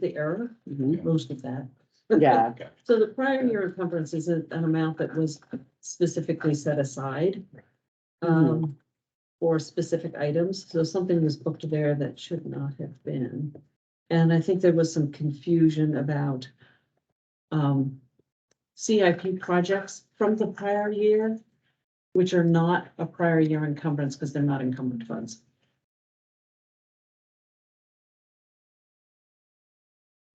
the error, most of that. Mm-hmm. Yeah, So the prior year encumbrance is a- an amount that was specifically set aside. Um, for specific items, so something was booked there that should not have been. And I think there was some confusion about. Um, CIP projects from the prior year. Which are not a prior year encumbrance because they're not encumbered funds.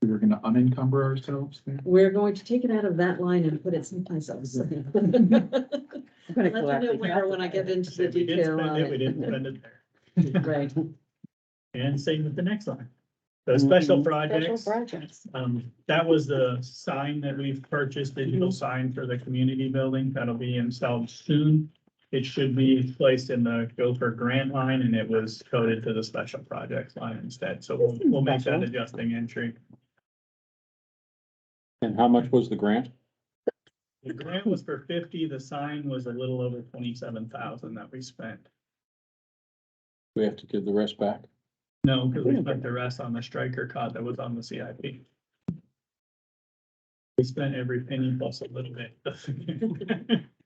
We were gonna unencumber ourselves there. We're going to take it out of that line and put it someplace else. I'm gonna Let me know collect it. where when I get into the Said we did detail spend on it, We it. didn't spend it there. Right. And same with the next line. The Mm-hmm. special projects, projects. um, that was the sign that we've purchased, Mm-hmm. digital sign for the community building. That'll be installed soon. It should be placed in the Gopher grant line and it was coded to the special projects line instead. So we'll, we'll make that Special. adjusting entry. And how much was the grant? The grant was for fifty, the sign was a little over twenty-seven thousand that we spent. We have to give the rest back. No, because we spent the rest on the striker cot that was on the CIP. We spent every penny plus a little bit.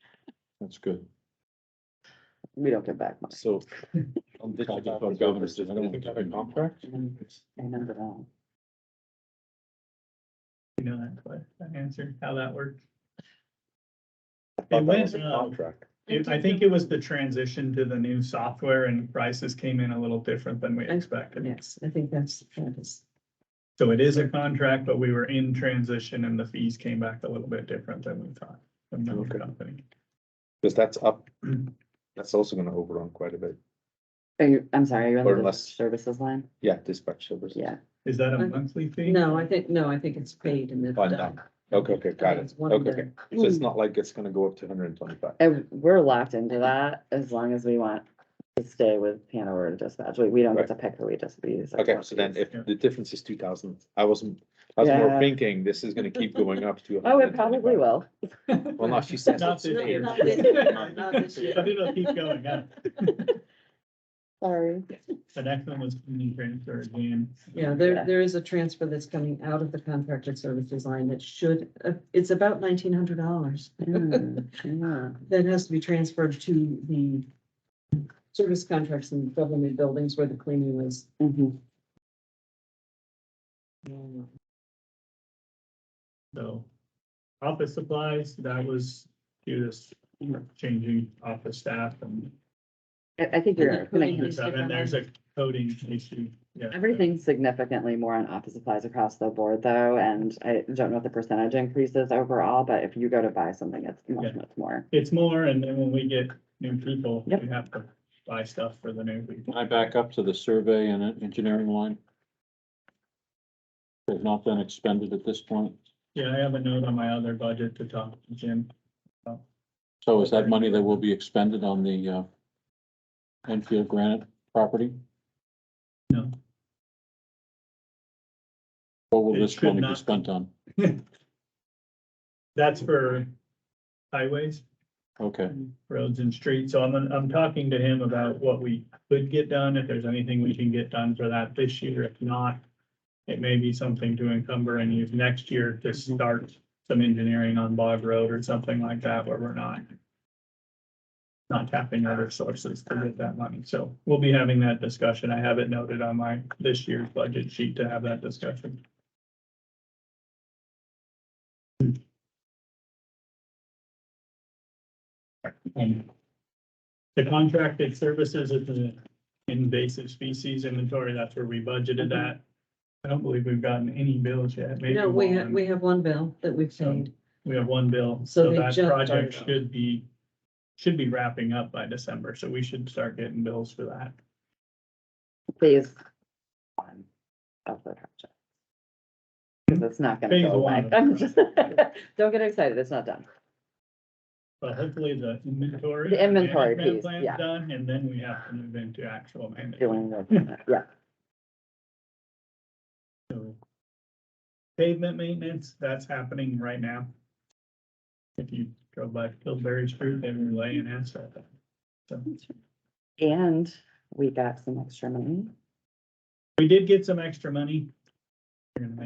That's good. We don't get back much. So. I'll Talking just- about governors, I don't think I have a contract. I um, remember that. You know, that que- that answer, how that worked. I thought It that went, was a uh, Contract. It- I think it was the transition to the new software and prices came in a little different than we expected. Yes, I think that's, that is. So it is a contract, but we were in transition and the fees came back a little bit different than we thought. From the Okay. company. Cause that's up, that's also gonna overrun quite a bit. Are you, I'm sorry, are you on Or the less. services line? Yeah, dispatch services. Yeah, Is that a monthly fee? No, I think, no, I think it's paid and it's Fine, done. Okay, okay, got It's it. one Okay, day. okay. So it's not like it's gonna go up to hundred and twenty-five. and we're locked into that as long as we want to stay with Hanover to dispatch. We, we don't get Right. to pick who we just we use. Okay, so then if Yeah. the difference is two thousand, I wasn't, I was more Yeah. thinking this is gonna keep going up to. Oh, it probably 125. will. Well, no, she says. Not it's this fair. year. Not this year, not this year. But it'll keep going up. Sorry. The next one was community transfer again. Yeah, there, Yeah. there is a transfer that's coming out of the contracted services line that should, uh, it's about nineteen hundred dollars. Mm, yeah. That has to be transferred to the service contracts in government buildings where the cleaning was. Mhm. So office supplies, that was due to changing office staff and I, I think you're, And then putting making- These different and there's a coding issue. Yeah. everything's significantly more on office supplies across the board though. And I don't know if the percentage increases overall, but if you go to buy something, it's much, Yeah. much more. It's more, and then when we get new people, Yep. we have to buy stuff for the new people. Can I back up to the survey and engineering line? They've not been expended at this point. Yeah, I have a note on my other budget to talk to Jim. So is that money that will be expended on the uh, Enfield Granite property? No. What will It this should money be not. spent on? That's for highways. Okay, roads and streets. So I'm, I'm talking to him about what we could get done, if there's anything we can get done for that this year. If not, it may be something to encumber and use next year to start some engineering on Bog Road or something like that where we're not not tapping other sources to get that money. So we'll be having that discussion. I have it noted on my, this year's budget sheet to have that discussion. Um, The contracted services is the invasive species inventory, that's where we budgeted that. I don't believe we've gotten any bills yet, maybe No, we have, one. we have one bill that we've So- paid. We have one bill, So so they that just started. project should be, should be wrapping up by December, so we should start getting bills for that. phase one of the project. Because it's not gonna Phase go one like, of I'm the just, don't get excited, it's not done. But hopefully the inventory. The inventory management piece, plan's yeah. Done, and then we have to move into actual management. Doing the, yeah, So Pavement maintenance, that's happening right now. If you go by Pillsbury Street, they were laying asphalt. So and we got some extra money. we did get some extra money. We're gonna